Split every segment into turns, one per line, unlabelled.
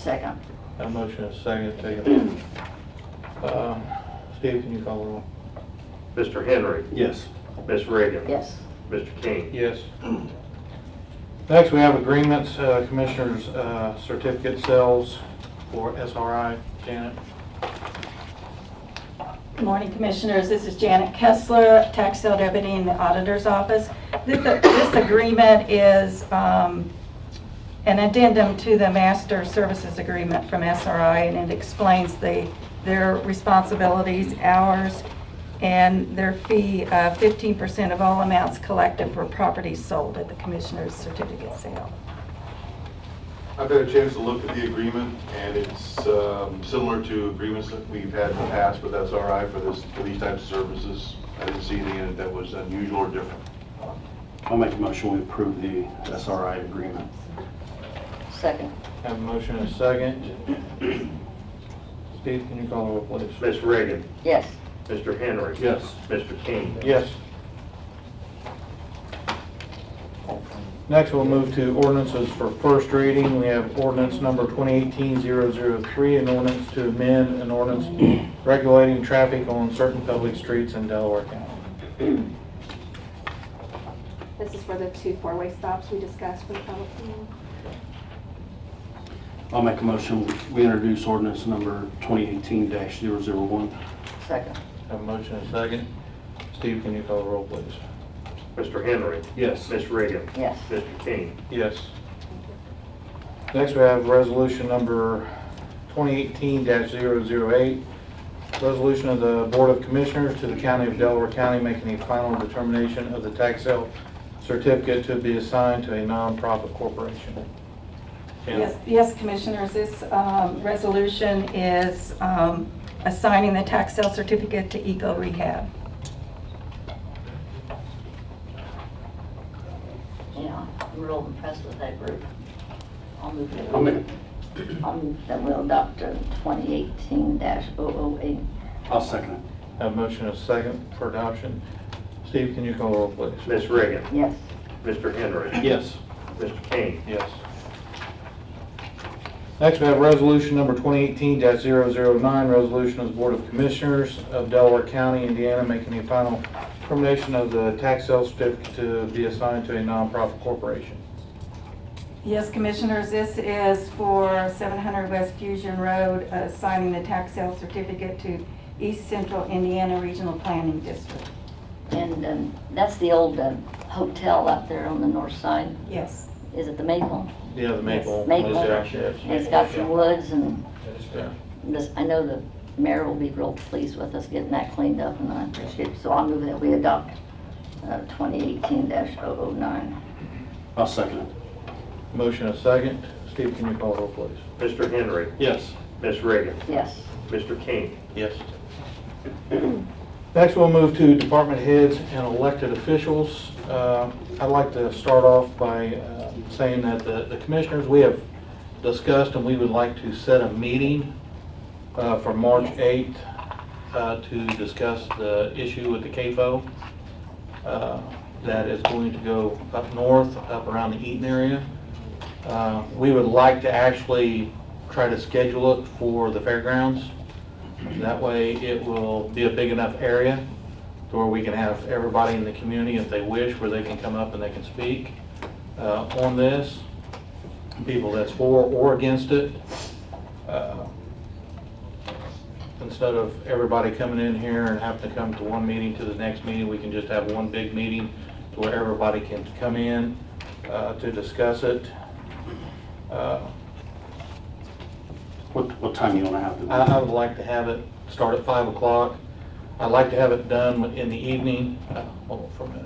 Second.
Got a motion and a second, taken. Uh, Steve, can you call the roll?
Mr. Henry.
Yes.
Ms. Reagan.
Yes.
Mr. King.
Yes. Next, we have agreements, uh, Commissioners' uh, certificate sales for SRI. Janet?
Good morning, Commissioners. This is Janet Kessler, Tax Sale Deputy in the Auditor's Office. This this agreement is um, an addendum to the Master Services Agreement from SRI, and it explains the, their responsibilities, hours, and their fee, uh, 15% of all amounts collected for properties sold at the Commissioner's certificate sale.
I've had a chance to look at the agreement, and it's um, similar to agreements that we've had in the past, but that's all right for this, for these types of services. I didn't see anything in it that was unusual or different.
I'll make a motion, we approve the SRI agreement.
Second.
Have a motion and a second. Steve, can you call the roll, please?
Ms. Reagan.
Yes.
Mr. Henry.
Yes.
Mr. King.
Yes. Next, we'll move to ordinances for first reading. We have ordinance number 2018-003, an ordinance to amend an ordinance regulating traffic on certain public streets in Delaware County.
This is for the two four-way stops we discussed for the public hearing.
I'll make a motion, we introduce ordinance number 2018-001.
Second.
Have a motion and a second. Steve, can you call the roll, please?
Mr. Henry.
Yes.
Ms. Reagan.
Yes.
Mr. King.
Yes. Next, we have resolution number 2018-008, resolution of the Board of Commissioners to the County of Delaware County making a final determination of the tax sale certificate to be assigned to a nonprofit corporation. Janet?
Yes, yes, Commissioners, this um, resolution is um, assigning the tax sale certificate to Eco Rehab.
Yeah, I'm real impressed with that group. I'll move that.
I'll make-
I'll move that we adopt uh, 2018-008.
I'll second it.
Have a motion and a second for adoption. Steve, can you call the roll, please?
Ms. Reagan.
Yes.
Mr. Henry.
Yes.
Mr. King.
Yes. Next, we have resolution number 2018-009, resolution of the Board of Commissioners of Delaware County, Indiana, making a final termination of the tax sale certificate to be assigned to a nonprofit corporation.
Yes, Commissioners, this is for 700 West Fusion Road, assigning the tax sale certificate to East Central Indiana Regional Planning District.
And um, that's the old uh, hotel up there on the north side.
Yes.
Is it the Maple?
Yeah, the Maple.
Maple.
Yes, yes.
And it's got some woods and
Yeah.
this, I know the mayor will be real pleased with us getting that cleaned up and I appreciate it. So I'll move that we adopt uh, 2018-009.
I'll second it.
Motion and a second. Steve, can you call the roll, please?
Mr. Henry.
Yes.
Ms. Reagan.
Yes.
Mr. King.
Yes. Next, we'll move to department heads and elected officials. Uh, I'd like to start off by uh, saying that the the commissioners, we have discussed and we would like to set a meeting uh, for March 8th uh, to discuss the issue with the CAFO uh, that is going to go up north, up around the Eaton area. Uh, We would like to actually try to schedule it for the fairgrounds. That way, it will be a big enough area to where we can have everybody in the community, if they wish, where they can come up and they can speak uh, on this, people that's for or against it. Uh, Instead of everybody coming in here and having to come to one meeting to the next meeting, we can just have one big meeting to where everybody can come in uh, to discuss it. Uh,
What, what time you want to have it?
I, I would like to have it start at five o'clock. I'd like to have it done in the evening. Uh, Hold on for a minute.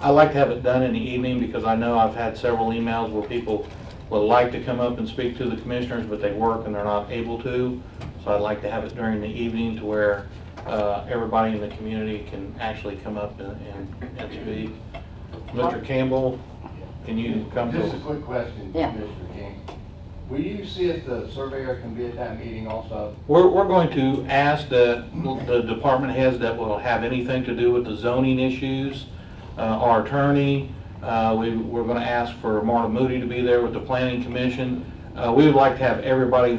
I'd like to have it done in the evening because I know I've had several emails where people would like to come up and speak to the commissioners, but they work and they're not able to. So I'd like to have it during the evening to where, uh, everybody in the community can actually come up and, and, and speak. Mr. Campbell, can you come
Just a
to?
quick question,
Yeah.
Mr. King. Will you see if the surveyor can be at that meeting also?
We're, we're going to ask the, the department heads that will have anything to do with the zoning issues, uh, our attorney, uh, we, we're gonna ask for Marta Moody to be there with the planning commission. Uh, Uh, We would like to have everybody